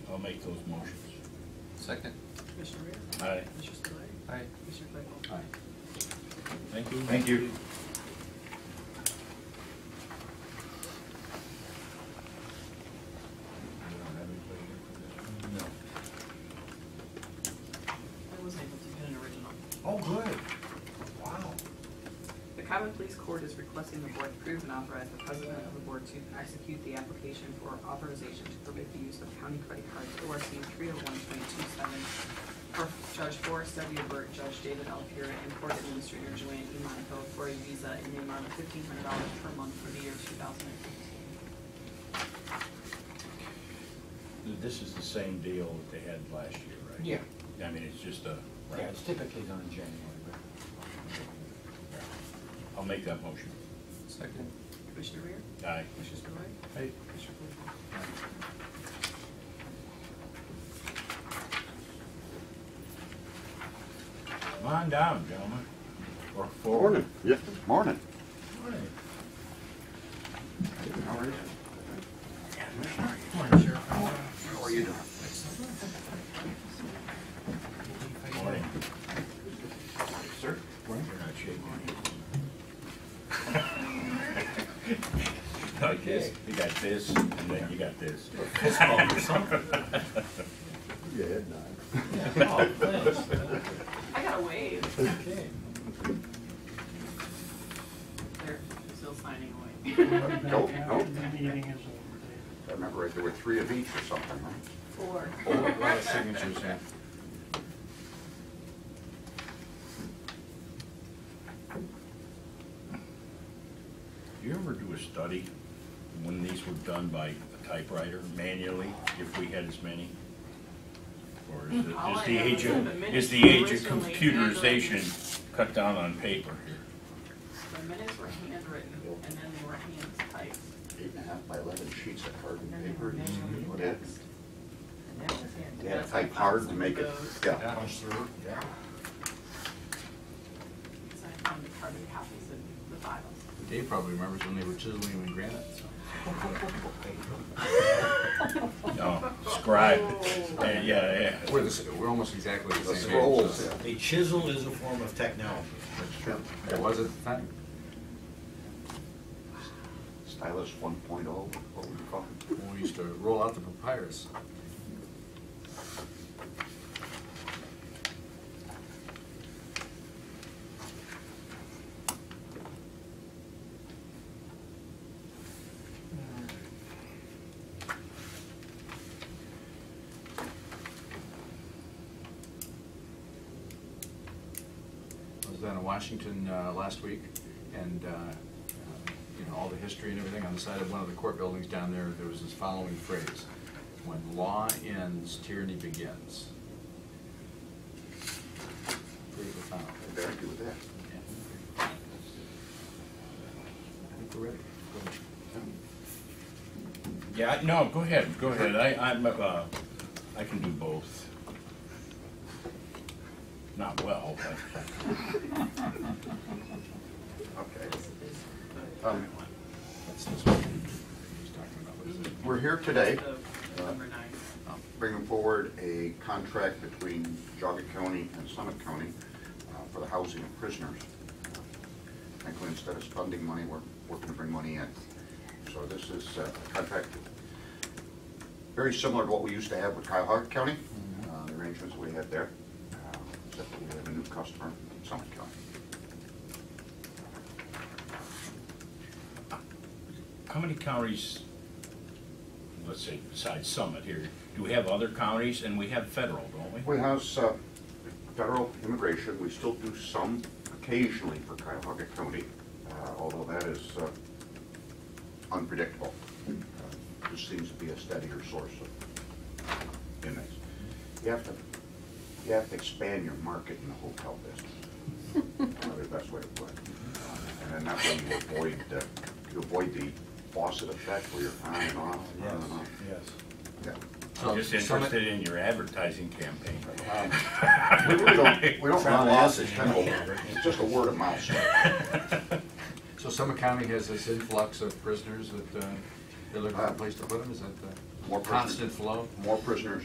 I'll make those motions. Second. Commissioner Rea? Aye. Commissioner Spillier? Aye. Commissioner Claypool? Aye. Thank you. Thank you. No. I was able to get an original. Oh, good. Wow. The Common Police Court is requesting the board approve and authorize the president of the board to execute the application for authorization to permit the use of county credit cards ORC three oh one point two seven for Judge Forrest W. Burt, Judge David L. Pura, and Court Administrator Joanne E. Monaco for a visa in the amount of fifteen hundred dollars per month for the year two thousand and fifteen. This is the same deal that they had last year, right? I mean, it's just a, Yeah, it's typically done in January, but. I'll make that motion. Second. Commissioner Rea? Aye. Commissioner Spillier? Hey. Commissioner Claypool? Come on down, gentlemen. Or forward. Morning. Yeah, morning. Morning. How are you? How are you doing? Morning. Sir? You're not shaking hands. Like this, you got this, and then you got this. Yeah, at nine. Oh, thanks. I got a wave. Okay. They're still signing away. Nope, nope. The meeting is over, David. I remember right, there were three of each or something, right? Four. signatures in. Do you ever do a study when these were done by a typewriter manually, if we had as many? Or is it, Hmm. All is I the know age is that the of, minutes is the age of originally handwritten. computerization cut down on paper here? The minutes were handwritten and then they were hand typed. Eight and a half by eleven sheets of And cardboard then they were paper. manually What it- indexed. And that was hand. They had to that's how I type found hard to some make of it, those, yeah. Punch through. Yeah. because I found the carbon copies in the files. Dave probably remembers when they were chiseling and granite. so. No, scribe, Oh. and yeah, yeah. We're the, s- we're almost exactly the The same. age, scrolls, so. yeah. A chisel is a form of technology. That's true. It was at the time. Stylus one oh, what would you call it? When we used to roll out the papyrus. I was down in Washington uh, last week, and, uh, uh, you know, all the history and everything, on the side of one of the court buildings down there, there was this following phrase, "When law ends, tyranny begins." Pretty profound. I'd argue with that. Yeah. I think we're ready. Go ahead. Yeah, I- no, go ahead, go ahead, I, I'm, uh, I can do both. Not well, but Okay. This is the Um, current one. That's this one. He's talking about, what is it? We're here today. Uh, That's the Number nine. bringing forward a contract between Jogga County and Summit County uh, for the housing of prisoners. Frankly, instead of spending money, we're working to bring money in. So this is uh, a contract very similar to what we used to have with Cuyahoga County, uh, the arrangements we had there, uh, except that we have a new customer, Summit County. how many counties, let's say besides Summit here, do we have other counties, and we have federal, don't we? We have uh, federal immigration, we still do some occasionally for Cuyahoga County, uh, although that is uh, unpredictable. Uh, This seems to be a steadier source of inmates. You have to, you have to expand your market in the hotel business, probably the best way to put it. And then that way you avoid, uh, you avoid the faucet effect where you're on and off, on and off. yes. Yeah. I'm just So, Summit- interested in your advertising campaign. Um, We really don't, we don't run loss, it's kind of, a- it's just a word of mouth. So Summit County has this influx of prisoners that uh, they're looking for a place to put them, is that the More prisoners. constant flow? More prisoners